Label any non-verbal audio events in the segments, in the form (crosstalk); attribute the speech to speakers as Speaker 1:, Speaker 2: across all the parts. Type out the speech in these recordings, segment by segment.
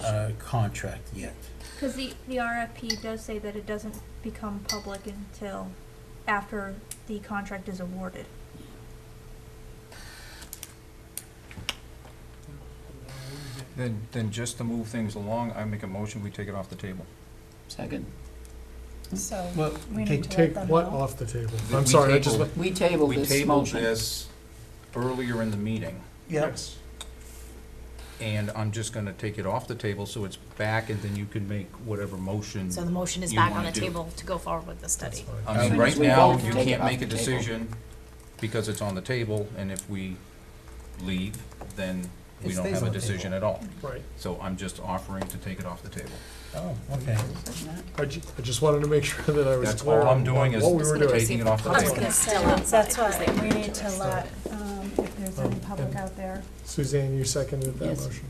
Speaker 1: uh, contract yet.
Speaker 2: Because the, the RFP does say that it doesn't become public until after the contract is awarded.
Speaker 3: Then, then just to move things along, I make a motion, we take it off the table.
Speaker 4: Second.
Speaker 5: So
Speaker 1: Well,
Speaker 5: Oh, we
Speaker 1: take-
Speaker 5: need to
Speaker 6: Take
Speaker 5: let them
Speaker 6: what
Speaker 5: know.
Speaker 6: off the table?
Speaker 3: That
Speaker 6: I'm
Speaker 3: we
Speaker 6: sorry, I just,
Speaker 3: tabled.
Speaker 4: We tabled
Speaker 3: We
Speaker 4: this
Speaker 3: tabled
Speaker 4: motion.
Speaker 3: this earlier in the meeting,
Speaker 1: Yep.
Speaker 3: and I'm just gonna take it off the table, so it's back, and then you can make whatever motion.
Speaker 7: So the motion is
Speaker 3: You
Speaker 7: back on
Speaker 3: wanna do.
Speaker 7: the table to go forward with the
Speaker 6: that's
Speaker 7: study.
Speaker 6: fine.
Speaker 3: I mean,
Speaker 4: Soon
Speaker 3: right
Speaker 4: as we
Speaker 3: now,
Speaker 4: vote,
Speaker 3: you
Speaker 4: take it
Speaker 3: can't
Speaker 4: off
Speaker 3: make a
Speaker 4: the table.
Speaker 3: decision because it's on the table, and if we leave, then we
Speaker 1: It
Speaker 3: don't
Speaker 1: stays
Speaker 3: have a
Speaker 1: on the
Speaker 3: decision
Speaker 1: table.
Speaker 3: at all.
Speaker 6: Right,
Speaker 3: So I'm just offering to take it off the table.
Speaker 1: Oh, okay.
Speaker 6: I ju- I just wanted to make (laughs) sure that I was
Speaker 3: That's
Speaker 6: clear
Speaker 3: all I'm
Speaker 6: on
Speaker 3: doing
Speaker 6: on
Speaker 3: is
Speaker 6: what we
Speaker 7: Just
Speaker 6: were
Speaker 7: gonna
Speaker 6: doing.
Speaker 7: proceed.
Speaker 3: Taking it off the
Speaker 7: Public
Speaker 3: table.
Speaker 7: is still outside.
Speaker 5: That's why, we need to
Speaker 7: So-
Speaker 5: let, um, if there's any public out there.
Speaker 6: Suzanne, you seconded that
Speaker 4: Yes.
Speaker 6: motion.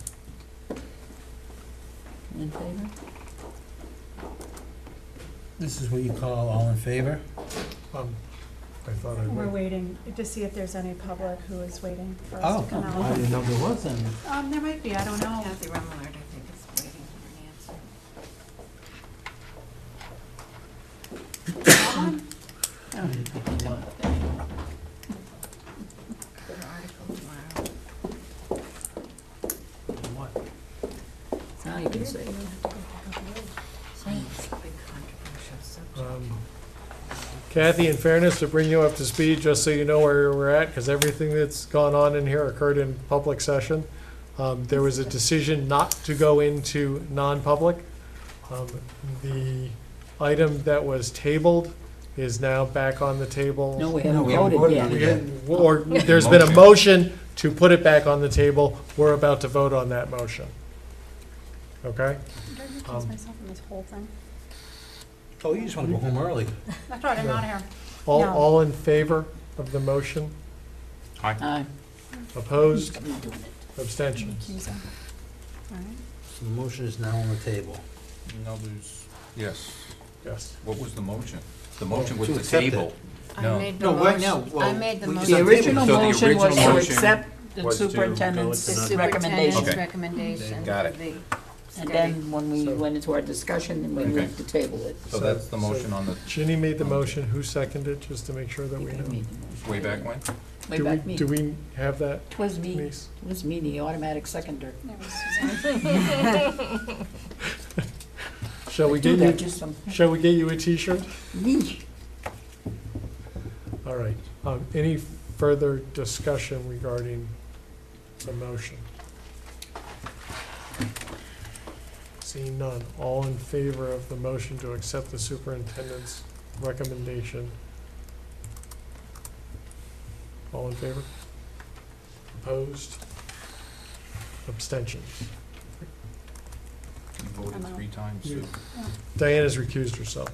Speaker 4: In favor?
Speaker 1: This is what you call all in favor?
Speaker 6: Um, I thought I
Speaker 5: We're
Speaker 6: would.
Speaker 5: waiting to see if there's any public who is waiting for us
Speaker 1: Oh,
Speaker 5: to come
Speaker 1: I
Speaker 5: out.
Speaker 1: didn't know there was any.
Speaker 5: Um, there might be, I don't know.
Speaker 7: Kathy Remillard, I think, is waiting for an
Speaker 4: I don't think we can.
Speaker 7: answer. An article tomorrow.
Speaker 4: Now you can say.
Speaker 7: It's big controversial subject.
Speaker 6: Um, Kathy, in fairness, to bring you up to speed, just so you know where we're at, because everything that's gone on in here occurred in public session. Um, There was a decision not to go into non-public. Um, The item that was tabled is now back on the table.
Speaker 4: No, we
Speaker 1: No,
Speaker 4: haven't
Speaker 1: we haven't voted
Speaker 4: voted
Speaker 1: on
Speaker 4: yet.
Speaker 1: it.
Speaker 6: We didn't- Or, there's been a motion to put it back on the table. We're about to vote on that motion. Okay?
Speaker 5: Did I recuse
Speaker 6: Um,
Speaker 5: myself from this whole thing?
Speaker 1: Oh, you just want to go home early.
Speaker 5: That's right, I'm out of here.
Speaker 6: All,
Speaker 5: No.
Speaker 6: all in favor of the motion?
Speaker 4: Aye.
Speaker 6: Opposed?
Speaker 4: I'm not doing it.
Speaker 6: Abstentions?
Speaker 5: Recusing. All right.
Speaker 1: So the motion is now on the table.
Speaker 3: No, there's, yes.
Speaker 6: Yes.
Speaker 3: What was the motion? The motion was
Speaker 1: To
Speaker 3: the
Speaker 1: accept it.
Speaker 3: table.
Speaker 7: I
Speaker 3: No.
Speaker 7: made the
Speaker 1: No, right now,
Speaker 7: motion, I
Speaker 1: well,
Speaker 7: made the
Speaker 1: we just-
Speaker 4: The
Speaker 7: motion.
Speaker 1: table it.
Speaker 4: original
Speaker 3: So the
Speaker 4: motion was
Speaker 3: original
Speaker 4: to
Speaker 3: motion
Speaker 4: accept the
Speaker 3: was to go into
Speaker 4: superintendent's
Speaker 7: The
Speaker 4: recommendation.
Speaker 7: superintendent's
Speaker 3: Okay.
Speaker 7: recommendation.
Speaker 3: Got
Speaker 7: for
Speaker 3: it.
Speaker 7: the
Speaker 4: And
Speaker 7: study.
Speaker 4: then when we
Speaker 6: So-
Speaker 4: went into our discussion, then we
Speaker 3: Okay.
Speaker 4: moved to table it.
Speaker 3: So that's the
Speaker 6: So-
Speaker 3: motion on the,
Speaker 6: Ginny made the motion. Who seconded, just to make sure that we
Speaker 4: You
Speaker 6: know?
Speaker 4: made the motion.
Speaker 3: way back when?
Speaker 4: Way
Speaker 6: Do we-
Speaker 4: back me.
Speaker 6: Do we have that,
Speaker 4: Twas me,
Speaker 6: Denise?
Speaker 4: twas me, the automatic seconder.
Speaker 5: There was Suzanne.
Speaker 6: Shall we
Speaker 4: Do
Speaker 6: get
Speaker 4: that,
Speaker 6: you,
Speaker 4: just some,
Speaker 6: shall we get you a T-shirt?
Speaker 4: me.
Speaker 6: All right. Um, Any further discussion regarding the motion? Seeing none, all in favor of the motion to accept the superintendent's recommendation? All in favor? Opposed? Abstentions?
Speaker 3: You voted
Speaker 5: Hello.
Speaker 3: three times. so-
Speaker 6: Diana's recused herself.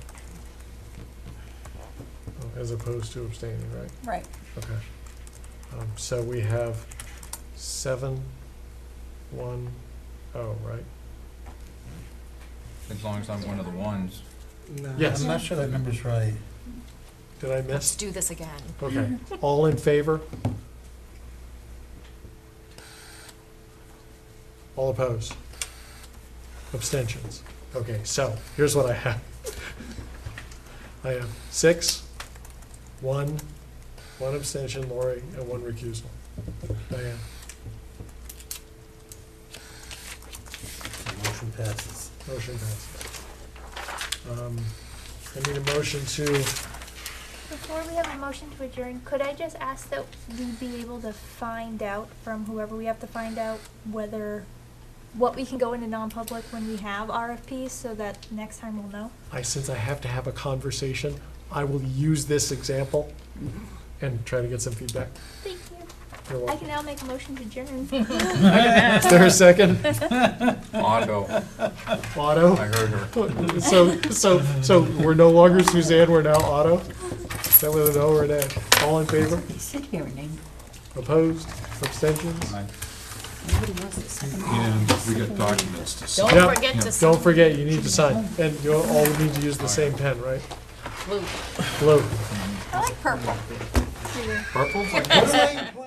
Speaker 6: Oh, As opposed to abstaining, right?
Speaker 5: Right.
Speaker 6: Okay. Um, so we have seven, one, oh, right?
Speaker 3: As long as I'm one of the ones.
Speaker 1: No,
Speaker 6: Yes.
Speaker 1: I'm not sure that number's right.
Speaker 6: Did I
Speaker 7: Let's
Speaker 6: miss?
Speaker 7: do this again.
Speaker 6: Okay. All in favor? All opposed? Abstentions? Okay, so here's what I have. I have six, one, one abstention, Lori, and one recusal. Diane?
Speaker 1: The motion passes.
Speaker 6: Motion passes. Um, I need a motion to,
Speaker 2: Before we have a motion to adjourn, could I just ask that we be able to find out from whoever we have to find out whether, what we can go into non-public when we have RFPs, so that next time we'll know?
Speaker 6: I, since I have to have a conversation, I will use this example and try to get some feedback.
Speaker 2: Thank you.
Speaker 6: You're
Speaker 2: I
Speaker 6: welcome.
Speaker 2: can now make a motion to adjourn.
Speaker 6: Is there a second?
Speaker 3: Otto, I
Speaker 6: Otto?
Speaker 3: heard (laughs) her.
Speaker 6: So, so, so we're no longer Suzanne, we're now Otto? Is that with an O or an A? All in favor?
Speaker 4: You sit here and name,
Speaker 6: Opposed? Abstentions?
Speaker 3: I-
Speaker 4: nobody wants to second.
Speaker 8: And we got documents to sign.
Speaker 7: Don't
Speaker 6: Yep.
Speaker 7: forget to.
Speaker 6: Don't forget, you need to sign. And you all need to use the same pen, right?
Speaker 7: Blue.
Speaker 6: Blue.
Speaker 7: I like purple.
Speaker 3: Purple?
Speaker 1: What am I,